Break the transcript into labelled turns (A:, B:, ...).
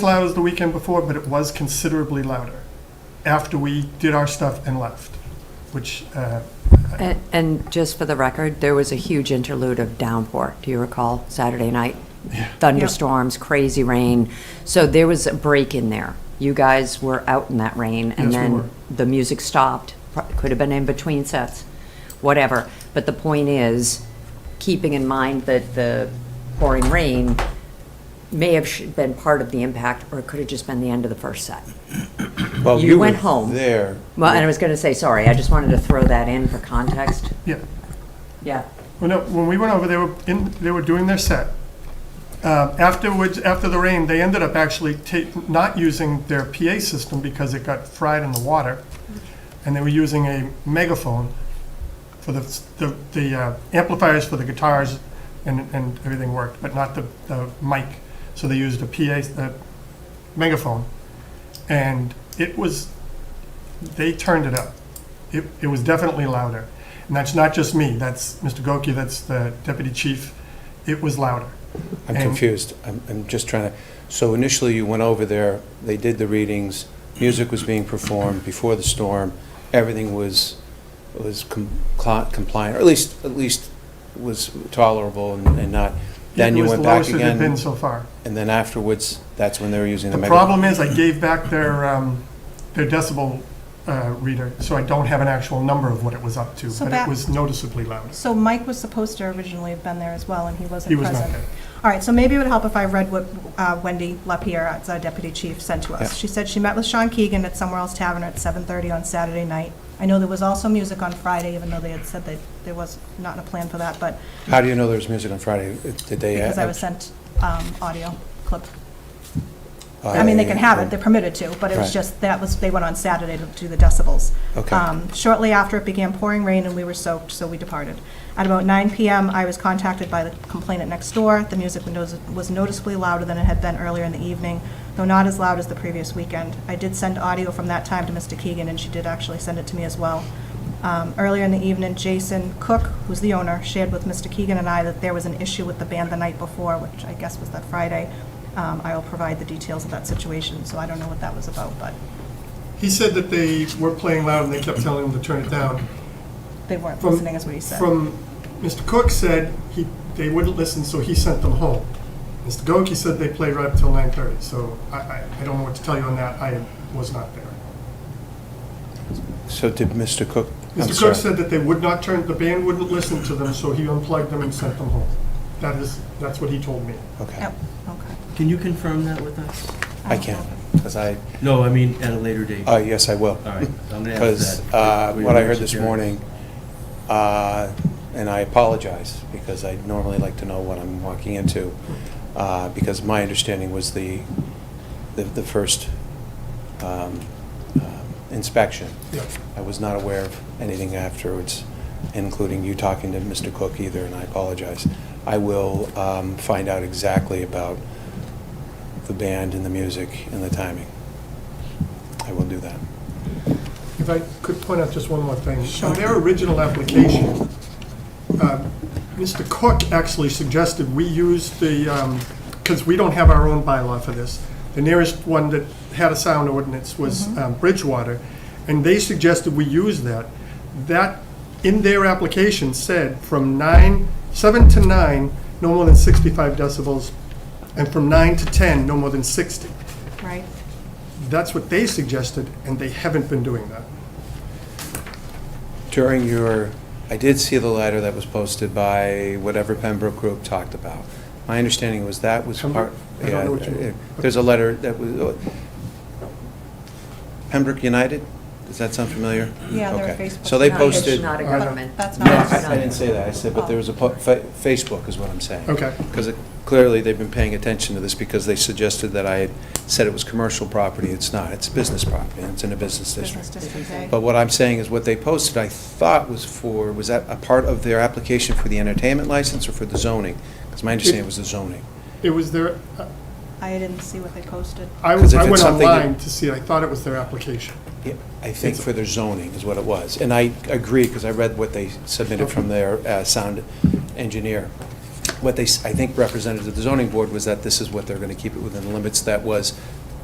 A: loud as the weekend before, but it was considerably louder after we did our stuff and left, which, uh,
B: And- And just for the record, there was a huge interlude of downpour, do you recall, Saturday night? Thunderstorms, crazy rain. So there was a break in there. You guys were out in that rain, and
A: Yes, we were.
B: then the music stopped. Pro- Could have been in between sets, whatever. But the point is, keeping in mind that the pouring rain may have sh- been part of the impact, or it could have just been the end of the first set.
C: Well,
B: You went
C: were
B: home.
C: There.
B: Well, and I was going to say, sorry, I just wanted to throw that in for context.
A: yeah.
B: Yeah.
A: Well, no, when we went over, they were in, they were doing their set. Uh, Afterwards, after the rain, they ended up actually ta- not using their PA system because it got fried in the water. And they were using a megaphone for the, the- the uh, amplifiers for the guitars and, and everything worked, but not the, the mic. So they used a PA, the megaphone. And it was, they turned it up. It, it was definitely louder. And that's not just me, that's Mr. Goki, that's the deputy chief. It was louder.
C: I'm
A: And-
C: confused. I'm, I'm just trying to, so initially you went over there, they did the readings, music was being performed before the storm, everything was, was com- cli- compliant, or at least, at least was tolerable and and not, then you went back
A: It was the lowest it had been
C: again,
A: so far.
C: and then afterwards, that's when they were using the
A: The
C: megaphone.
A: problem is, I gave back their, um, their decibel uh, reader, so I don't have an actual number of what it was up to,
D: So
A: but it
D: back-
A: was noticeably loud.
D: So Mike was supposed to originally have been there as well, and he
A: He
D: wasn't
A: was
D: present.
A: not there.
D: All right, so maybe it would help if I read what uh, Wendy LaPierre, as our deputy chief, sent to us.
C: Yeah.
D: She said she met with Sean Keegan at Somewhere Else Tavern at 7:30 on Saturday night. I know there was also music on Friday, even though they had said that there was not a plan for that, but
C: How do you know there was music on Friday? Did they?
D: because I
C: add-
D: was sent um, audio clip.
C: Oh, uh,
D: I mean, they can have it, they're permitted to, but it was
C: Right.
D: just, that was, they went on Saturday to do the decibels.
C: Okay.
D: Um, Shortly after, it began pouring rain and we were soaked, so we departed. At about 9 PM, I was contacted by the complainant next door. The music windows- was noticeably louder than it had been earlier in the evening, though not as loud as the previous weekend. I did send audio from that time to Mr. Keegan, and she did actually send it to me as well. Um, Earlier in the evening, Jason Cook, who's the owner, shared with Mr. Keegan and I that there was an issue with the band the night before, which I guess was that Friday. Um, I will provide the details of that situation, so I don't know what that was about, but
A: He said that they were playing loud and they kept telling him to turn it down.
D: they weren't
A: From-
D: listening, is what he said.
A: From, Mr. Cook said he, they wouldn't listen, so he sent them home. Mr. Goki said they played right up till 9:30, so I, I, I don't know what to tell you on that, I was not there.
C: So did Mr. Cook? I'm
A: Mr.
C: sorry.
A: Cook said that they would not turn, the band wouldn't listen to them, so he unplugged them and sent them home. That is, that's what he told me.
C: Okay,
D: Yep, okay.
E: Can you confirm that with us?
C: I can't, because I,
E: No, I mean, at a later date.
C: oh, yes, I will.
E: All right, I'm gonna ask
C: Because
E: that.
C: uh,
E: We
C: what I
E: were
C: heard this
E: secure.
C: morning, uh, and I apologize, because I normally like to know what I'm walking into, uh, because my understanding was the, the- the first um, um, inspection.
A: Yeah.
C: I was not aware of anything afterwards, including you talking to Mr. Cook either, and I apologize. I will um, find out exactly about the band and the music and the timing. I will do that.
A: If I could point out just one more thing.
D: Sure.
A: On their original application, uh, Mr. Cook actually suggested we use the, because we don't have our own bylaw for this. The nearest one that had a sound ordinance was um, Bridgewater, and they suggested we use that. That, in their application, said from nine, seven to nine, no more than 65 decibels, and from nine to 10, no more than 60.
D: Right.
A: That's what they suggested, and they haven't been doing that.
C: During your, I did see the letter that was posted by whatever Pembroke Group talked about. My understanding was that was part.
A: Pembroke? I don't know what you-
C: Yeah, it- There's a letter that was, oh, Pembroke United? Does that sound familiar?
D: Yeah, they're
C: Okay.
D: Facebook.
C: So they
B: No,
C: posted.
B: It's not a
A: But
B: government.
D: that's
C: No,
D: not-
C: I I didn't say that. I said, but there was a, po- fa- Facebook is what I'm saying.
A: Okay.
C: Because clearly, they've been paying attention to this because they suggested that I had said it was commercial property. It's not. It's business property, and it's in a business
D: Business
C: district.
D: District A.
C: But what I'm saying is what they posted, I thought was for, was that a part of their application for the entertainment license or for the zoning? Because my understanding was the zoning.
A: It was their,
D: I didn't see what they posted.
A: I, I
C: 'Cause if it's
A: went
C: something that-
A: online to see, I thought it was their application.
C: Yeah, I think for their zoning is what it was. And I agree, because I read what they submitted from their uh, sound engineer. what they, s- I think, represented to the zoning board was that this is what they're going to keep it within the limits that was